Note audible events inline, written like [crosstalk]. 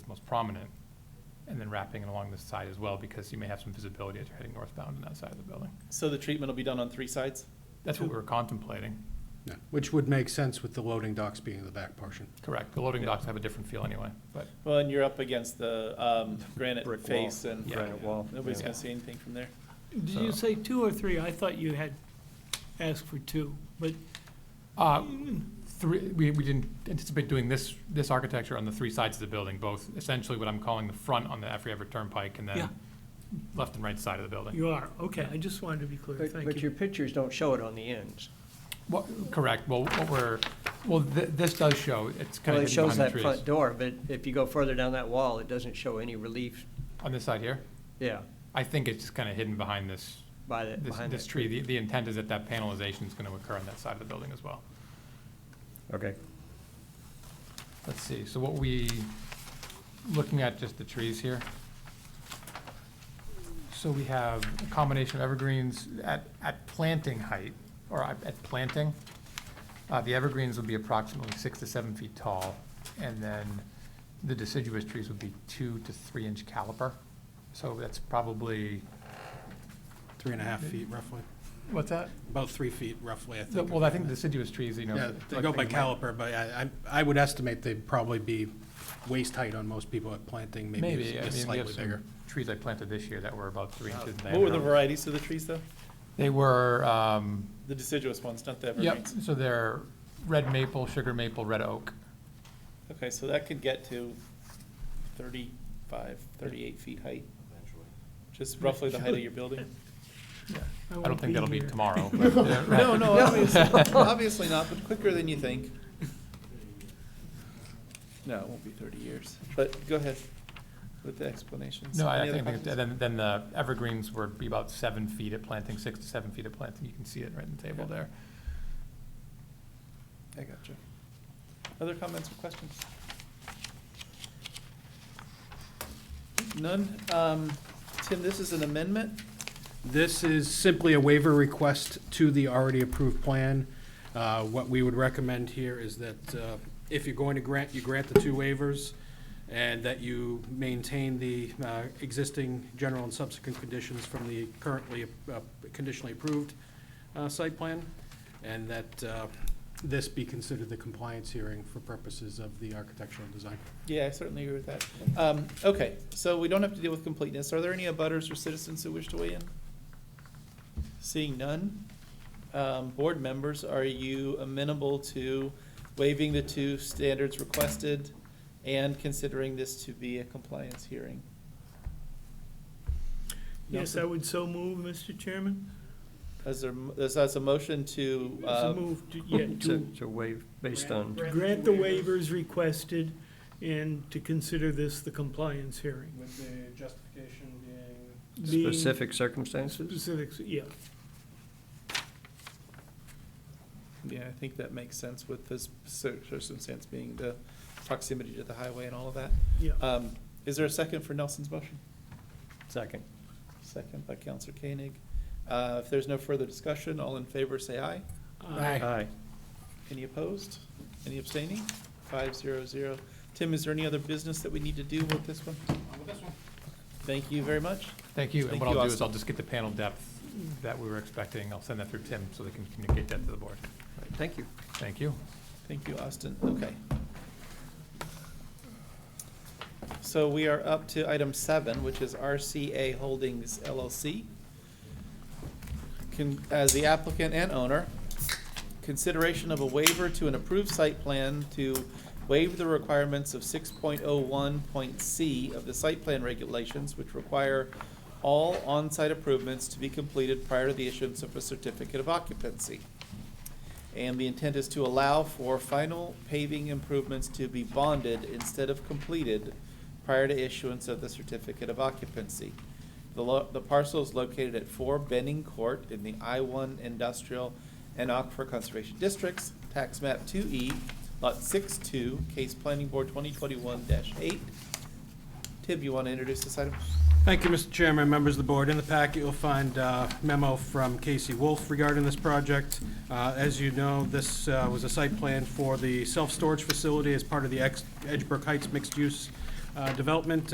prominent, and then wrapping it along the side as well, because you may have some visibility as you're heading northbound on that side of the building. So the treatment will be done on three sides? That's what we were contemplating. Yeah, Which would make sense with the loading docks being the back portion. Correct. The loading docks have a different feel anyway, but Well, and you're up against the um, granite Brick wall. face and Yeah. Granite wall. nobody's Yeah. gonna see anything from there. Did you So- say two or three? I thought you had asked for two, but Uh, Three, we, we didn't anticipate doing this, this architecture on the three sides of the building, both essentially what I'm calling the front on the Effie Everett Turnpike and Yeah. then left and right side of the building. you are. Okay, I just wanted to be clear. But, Thank but your you. pictures don't show it on the ends. Well, correct, well, what we're, well, thi- this does show, it's kind Well, of it hidden shows behind the that trees. front door, but if you go further down that wall, it doesn't show any relief, On this side here, yeah, I think it's just kind of hidden behind this, by the, this, behind this it. tree. The, the intent is that that panelization is going to occur on that side of the building as well. Okay. Let's see, so what we, looking at just the trees here. So we have a combination of evergreens at, at planting height, or at at planting. Uh, the evergreens would be approximately six to seven feet tall, and then the deciduous trees would be two to three inch caliper. So that's probably, Three and a half feet roughly, what's that? about three feet roughly, I think. Well, I think deciduous trees, you know. Yeah, they go by caliper, but I, I I would estimate they'd probably be waist height on most people at planting, maybe Maybe, I just mean, we have slightly bigger. some trees I planted this year that were about three inches in diameter. What were the varieties of the trees though? They were, um, The deciduous ones, not the yep, evergreens? so they're red maple, sugar maple, red oak. Okay, so that could get to 35, 38 feet height? Just roughly the height of your building? I don't won't think that'll be here. tomorrow. [laughs] but they're- [laughs] No, no, obviously, obviously not, but quicker than you think. No, it won't be 30 years, but go ahead with the explanations. No, I Any I other think, questions? that- then, then the evergreens would be about seven feet at planting, six to seven feet at planting. You can see it right in the table Okay. there. I gotcha. Other comments or questions? None? Um, Tim, this is an amendment? This is simply a waiver request to the already approved plan. Uh, What we would recommend here is that uh, if you're going to grant, you grant the two waivers, and that you maintain the uh, existing general and subsequent conditions from the currently uh, conditionally approved uh, site plan, and that uh, this be considered the compliance hearing for purposes of the architectural design. Yeah, I certainly agree with that. Um, okay, so we don't have to deal with completeness. Are there any abutters or citizens who wish to weigh in? Seeing none, um, board members, are you amenable to waiving the two standards requested and considering this to be a compliance hearing? Yes, I would so move, Mr. Chairman. Is there, is that a motion to, So uh, move, to- [laughs] yeah, To, to to waive based on, grant the waivers requested and to consider this the compliance hearing. With the justification being Being specific circumstances? Specifics, yeah. yeah, I think that makes sense with this cir- circumstance being the proximity to the highway and all of that. Yeah. Uh, Um, is there a second for Nelson's motion? Second. Second by Counselor Koenig. Uh, If there's no further discussion, all in favor say aye. Aye. Aye. Any opposed? Any abstaining? Five zero zero. Tim, is there any other business that we need to do with this one? Thank you very much. Thank you. And Thank what you, I'll do is Austin. I'll just get the panel depth that we were expecting. I'll send that through Tim so they can communicate that to the board. Thank you. Thank you. Thank you, Austin. Okay. So we are up to item seven, which is RCA Holdings LLC. Can, as the applicant and owner, consideration of a waiver to an approved site plan to waive the requirements of six point oh one point C of the site plan regulations, which require all on-site improvements to be completed prior to the issuance of a certificate of occupancy. And the intent is to allow for final paving improvements to be bonded instead of completed prior to issuance of the certificate of occupancy. The lo- the parcel is located at four Benning Court in the I one Industrial and Aquifer Conservation Districts, tax map two E, lot six two, case planning board twenty twenty-one eight. Tib, you want to introduce this item? Thank you, Mr. Chairman, members of the board. In the packet, you'll find a memo from Casey Wolf regarding this project. Uh, As you know, this uh, was a site plan for the self-storage facility as part of the Ex- Edgebrook Heights mixed-use uh, Development